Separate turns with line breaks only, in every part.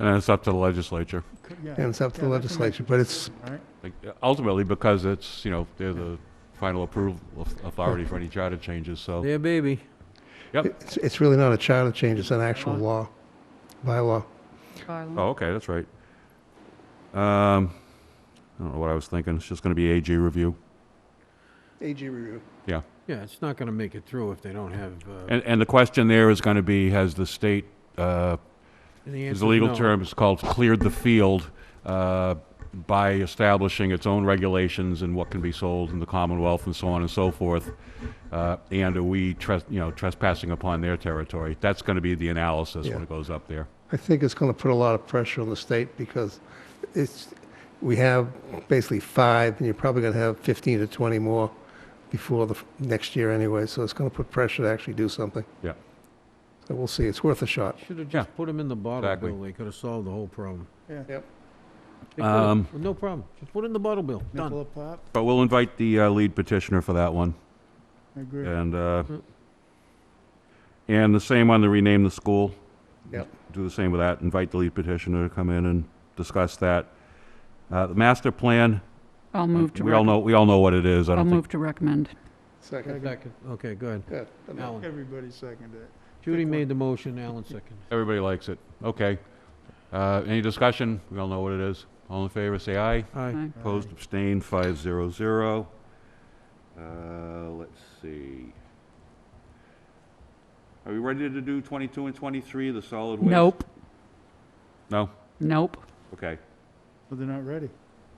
And it's up to the legislature.
Yeah,
And it's up to the
yeah,
legislature, but it's,
All right,
Like, Ultimately, because it's, you know, they're the final approval auth- authority for any charter changes, so.
Yeah, baby.
it's, it's really not a charter change, it's an actual law, bylaw.
Oh, okay, that's right. Um, I don't know what I was thinking. It's just going to be AG review.
AG review.
Yeah.
Yeah, it's not gonna make it through if they don't have, uh,
And, and the question there is going to be, has the state, uh,
and the
His
answer's
legal
no.
term is called cleared the field uh, by establishing its own regulations and what can be sold in the Commonwealth and so on and so forth. Uh, And are we, tres- you know, trespassing upon their territory? That's going to be the analysis when
Yeah.
it goes up there.
I think it's going to put a lot of pressure on the state because it's, we have basically five, and you're probably going to have 15 to 20 more before the f- next year anyway, so it's going to put pressure to actually do something.
Yeah.
So we'll see, it's worth a shot.
Should've
Yeah.
just put them in the bottle
Exactly.
bill, they could've solved the whole problem.
yeah.
Yep.
They
Um,
could've- No problem, just put it in the bottle bill,
Nipple
done.
pop,
But we'll invite the uh, lead petitioner for that one.
I agree.
And, uh,
Mm.
and the same on the rename the school.
Yep.
Do the same with that, invite the lead petitioner to come in and discuss that. Uh, The master plan,
I'll move to,
we all
rec-
know, we all know what it is. I
I'll
don't think
move to recommend.
Second.
Second, okay, go ahead.
Good. I'm out.
Alan,
Everybody seconded it.
Judy
one.
made the motion, Alan second.
Everybody likes it. Okay. Uh, Any discussion? We all know what it is. All in favor, say aye.
Aye.
Aye.
Opposed, abstained, five zero zero. Uh, Let's see. Are we ready to do 22 and 23, the solid waste?
Nope,
No?
nope,
Okay.
But they're not ready.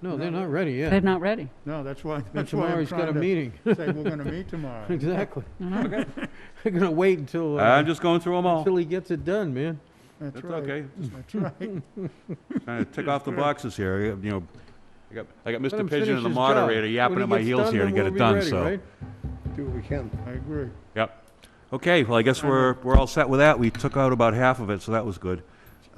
No, they're not ready
they're
yet.
not ready.
No, that's why,
And
that's why
tomorrow
I'm
he's got a
trying to
meeting,
say we're gonna meet tomorrow.
exactly.
No.
They're gonna wait until,
I'm
uh,
just going through them all.
until he gets it done, man.
That's
That's
right.
okay.
That's right.
Trying to tick off the boxes here. I got, You know, I got, I got
Let him
Mr.
finish
Pigeon and the
his job.
moderator yapping
When
at
he
my
gets
heels
done,
here to
then
get
we'll
it
be
done,
ready,
so.
right?
Do what we can.
I agree.
Yep. Okay, well, I guess we're, we're all set with that. We took out about half of it, so that was good.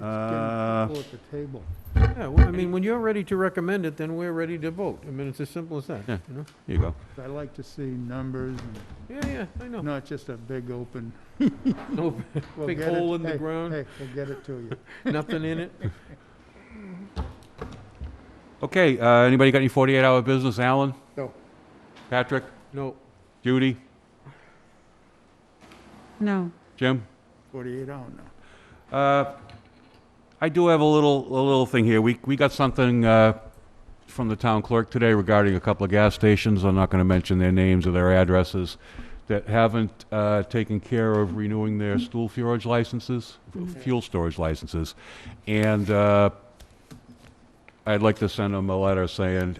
Uh,
People at the table.
Yeah, well, I mean, when you're ready to recommend it, then we're ready to vote. I mean, it's as simple as that,
Yeah.
you know?
Here you go.
I like to see numbers and
Yeah, yeah, I know.
not just a big open.
No
we'll
big
get it-
hole in the
hey,
ground,
Hey, we'll get it to you.
nothing in it.
Okay, uh, anybody got any 48-hour business? Alan?
No.
Patrick?
No,
Judy?
No,
Jim?
Forty-eight hour now.
Uh, I do have a little, a little thing here. We, we got something uh, from the town clerk today regarding a couple of gas stations. I'm not going to mention their names or their addresses that haven't uh, taken care of renewing their stool storage licenses, fuel storage licenses. And uh, I'd like to send them a letter saying,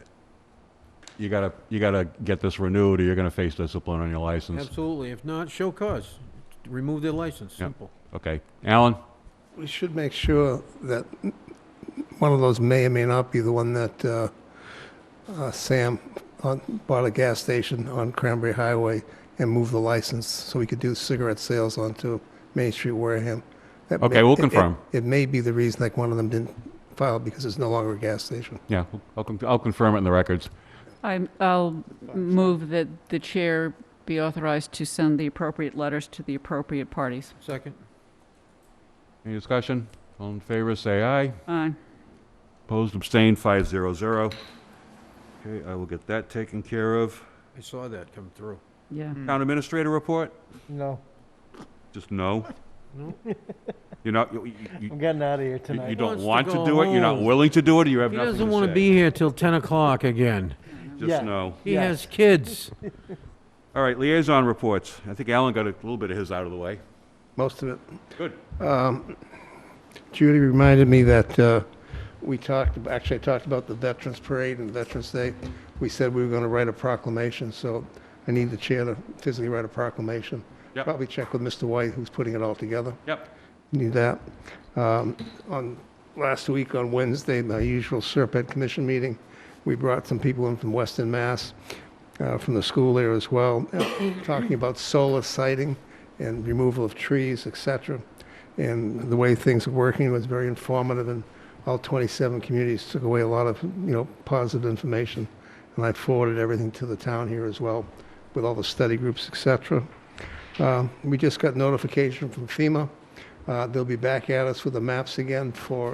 you gotta, you gotta get this renewed, or you're gonna face discipline on your license.
absolutely. If not, show cause. Remove their license,
Yeah.
simple.
Okay. Alan?
We should make sure that one of those may or may not be the one that uh, uh, Sam on- bought a gas station on Cranberry Highway and moved the license so we could do cigarette sales onto Main Street, Wareham. That may-
Okay, we'll
it- it-
confirm.
It may be the reason like one of them didn't file because it's no longer a gas station.
Yeah, I'll, con- I'll confirm it in the records.
I'm, I'll move that the chair be authorized to send the appropriate letters to the appropriate parties.
Second,
Any discussion? All in favor, say aye.
Aye.
Opposed, abstained, five zero zero. Okay, I will get that taken care of.
I saw that come through.
yeah.
Hmm.
Town administrator report?
No,
Just no.
No?
You're not, you, you-
I'm getting out of here
you, you
tonight.
don't want
Wants to
to do
go
it, you're not
home.
willing to do it, or you have
He
nothing to say?
doesn't want to be here till 10 o'clock again.
Yeah.
Just no.
He
Yeah.
has kids.
All right, liaison reports. I think Alan got a little bit of his out of the way.
Most of it
Good.
Um, Judy reminded me that uh, we talked, actually I talked about the Veterans Parade and Veterans Day. We said we were going to write a proclamation, so I need the chair to physically write a proclamation.
Yep.
Probably check with Mr. White, who's putting it all together.
Yep.
Need that. Um, On, last week on Wednesday, my usual Serpent Commission meeting, we brought some people in from Weston, Mass, uh, from the school there as well, talking about solar sighting and removal of trees, et cetera. And the way things are working was very informative, and all 27 communities took away a lot of, you know, positive information. And I forwarded everything to the town here as well, with all the study groups, et cetera. Uh, We just got notification from FEMA. Uh, They'll be back at us with the maps again for